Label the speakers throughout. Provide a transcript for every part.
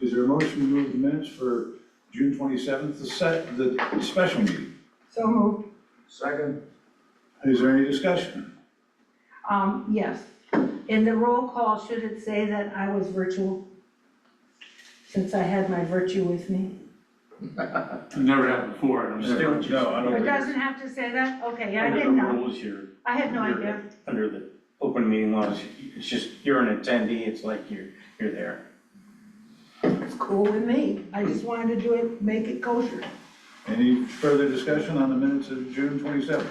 Speaker 1: there a motion to move the minutes for June twenty-seventh, the set, the special meeting?
Speaker 2: So moved.
Speaker 3: Second?
Speaker 1: Is there any discussion?
Speaker 2: Um, yes. In the roll call, should it say that I was virtual? Since I had my virtue with me?
Speaker 4: I've never had before, and I'm still.
Speaker 1: No, I
Speaker 2: It
Speaker 1: don't think,
Speaker 2: doesn't have to say that? Okay, I
Speaker 4: Under the
Speaker 2: didn't know.
Speaker 4: rules here,
Speaker 2: I had no idea.
Speaker 4: under the open meeting laws, it's just, you're an attendee, it's like you're, you're there.
Speaker 2: It's cool with me. I just wanted to do it, make it kosher.
Speaker 1: any further discussion on the minutes of June twenty-seventh?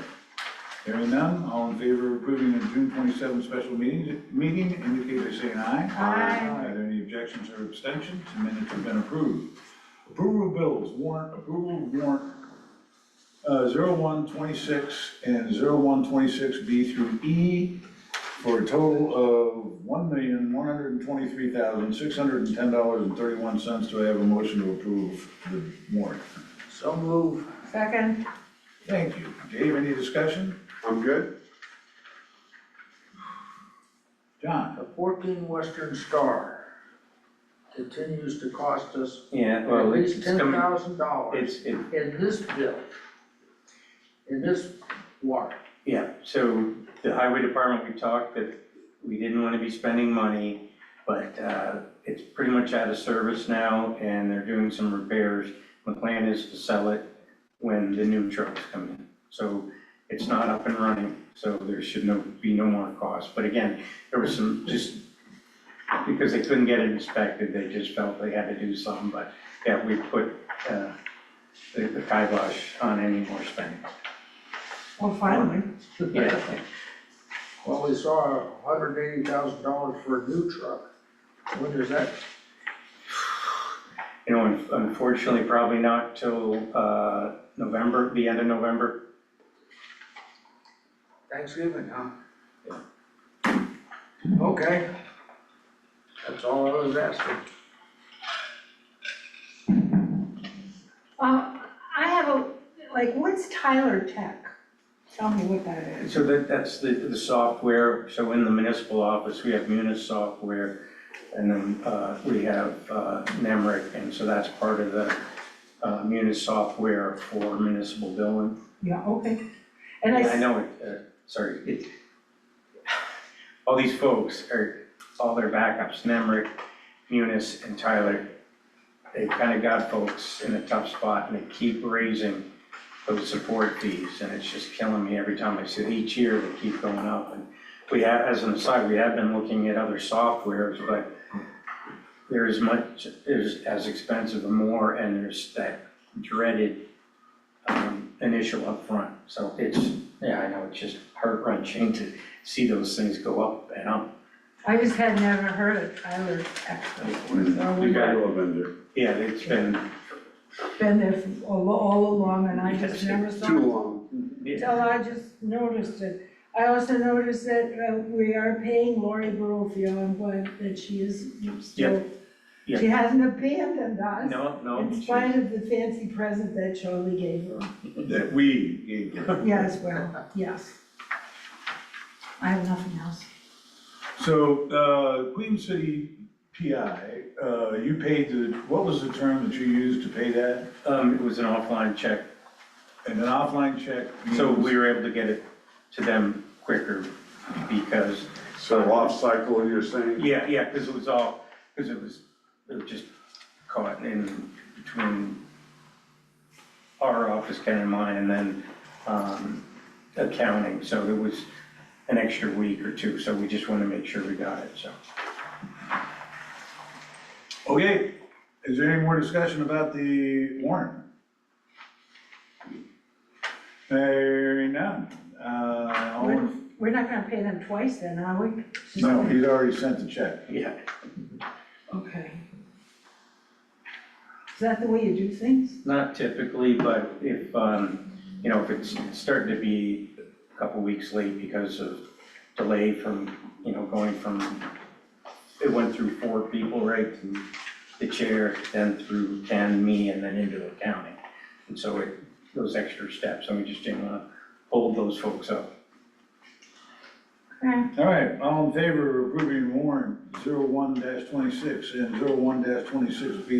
Speaker 1: Hearing none, all in favor of approving the June twenty-seventh special meeting, meeting, indicate by saying aye.
Speaker 2: Aye.
Speaker 1: Are there any objections or abstentions? The minutes have been approved. Approval of bills, warrant, approval of warrant, uh, zero one twenty-six and zero one twenty-six B through E for a total of one million, one hundred and twenty-three thousand, six hundred and ten dollars and thirty-one cents. Do I have a motion to approve the warrant?
Speaker 3: So move.
Speaker 2: Second,
Speaker 1: Thank you. Dave, any discussion?
Speaker 5: I'm good.
Speaker 1: John?
Speaker 3: The fourteen Western Star continues to cost us
Speaker 4: Yeah,
Speaker 3: at
Speaker 4: well, it's
Speaker 3: least ten
Speaker 4: coming,
Speaker 3: thousand dollars
Speaker 4: it's, it,
Speaker 3: in this bill. In this water.
Speaker 4: yeah, so the highway department, we talked that we didn't wanna be spending money, but, uh, it's pretty much out of service now, and they're doing some repairs. The plan is to sell it when the new trucks come in, so it's not up and running, so there should no, be no more cost. But again, there was some, just, because they couldn't get it inspected, they just felt they had to do something, but, yeah, we put, uh, the the kibosh on any more spending.
Speaker 2: well, finally.
Speaker 4: Yeah,
Speaker 3: Well, we saw hundred eighty thousand dollars for a new truck. When does that,
Speaker 4: You know, un- unfortunately, probably not till uh, November, the end of November.
Speaker 3: Thanksgiving, huh? Okay. That's all I was asking.
Speaker 2: Uh, I have a, like, what's Tyler Tech? Tell me what that is.
Speaker 4: So that, that's the, the software, so in the municipal office, we have Munis software, and then uh, we have uh, Nemrick, and so that's part of the uh, Munis software for municipal billing.
Speaker 2: Yeah, okay. And I,
Speaker 4: And I
Speaker 2: s-
Speaker 4: know it, uh, sorry, it, all these folks are, all their backups, Nemrick, Munis, and Tyler, they kind of got folks in a tough spot, and they keep raising those support fees, and it's just killing me every time I see it. Each year, they keep going up, and we have, as an aside, we have been looking at other softwares, but they're as much, there's as expensive or more, and there's that dreaded um, initial upfront. So it's, yeah, I know, it's just heart wrenching to see those things go up and up.
Speaker 2: I just had never heard of Tyler Tech before, so
Speaker 4: You
Speaker 2: we've
Speaker 4: got it.
Speaker 5: Hello, Avenger.
Speaker 4: Yeah, it's been,
Speaker 2: been there for all all along and I just never saw it.
Speaker 5: Too long.
Speaker 4: yeah,
Speaker 2: Until I just noticed it. I also noticed that uh, we are paying Lori Barofield, I'm glad that she is still,
Speaker 4: Yeah.
Speaker 2: she hasn't abandoned us
Speaker 4: no, no.
Speaker 2: in spite of the fancy present that Charlie gave her.
Speaker 1: That we gave you.
Speaker 2: Yes, well, yes. I have nothing else.
Speaker 1: So, uh, Queen City PI, uh, you paid the, what was the term that you used to pay that?
Speaker 4: Um, it was an offline check,
Speaker 1: And an offline check?
Speaker 4: so
Speaker 1: means-
Speaker 4: we were able to get it to them quicker because,
Speaker 5: So off cycle, you're saying?
Speaker 4: yeah, yeah, because it was all, because it was, it was just caught in between our office, Ken and mine, and then, um, accounting, so it was an extra week or two, so we just wanted to make sure we got it, so.
Speaker 1: Okay, is there any more discussion about the warrant? Hearing none. Uh, all
Speaker 2: We're
Speaker 1: in-
Speaker 2: we're not gonna pay them twice then, are we?
Speaker 1: No, he'd already sent the check.
Speaker 4: Yeah,
Speaker 2: Okay. Is that the way you do things?
Speaker 4: not typically, but if, um, you know, if it's starting to be a couple weeks late because of delay from, you know, going from, it went through four people, right, through the chair, then through Ken, me, and then into accounting. And so it, those extra steps, and we just didn't wanna hold those folks up.
Speaker 2: Okay.
Speaker 1: All right, all in favor of approving warrant zero one dash twenty-six and zero one dash twenty-six B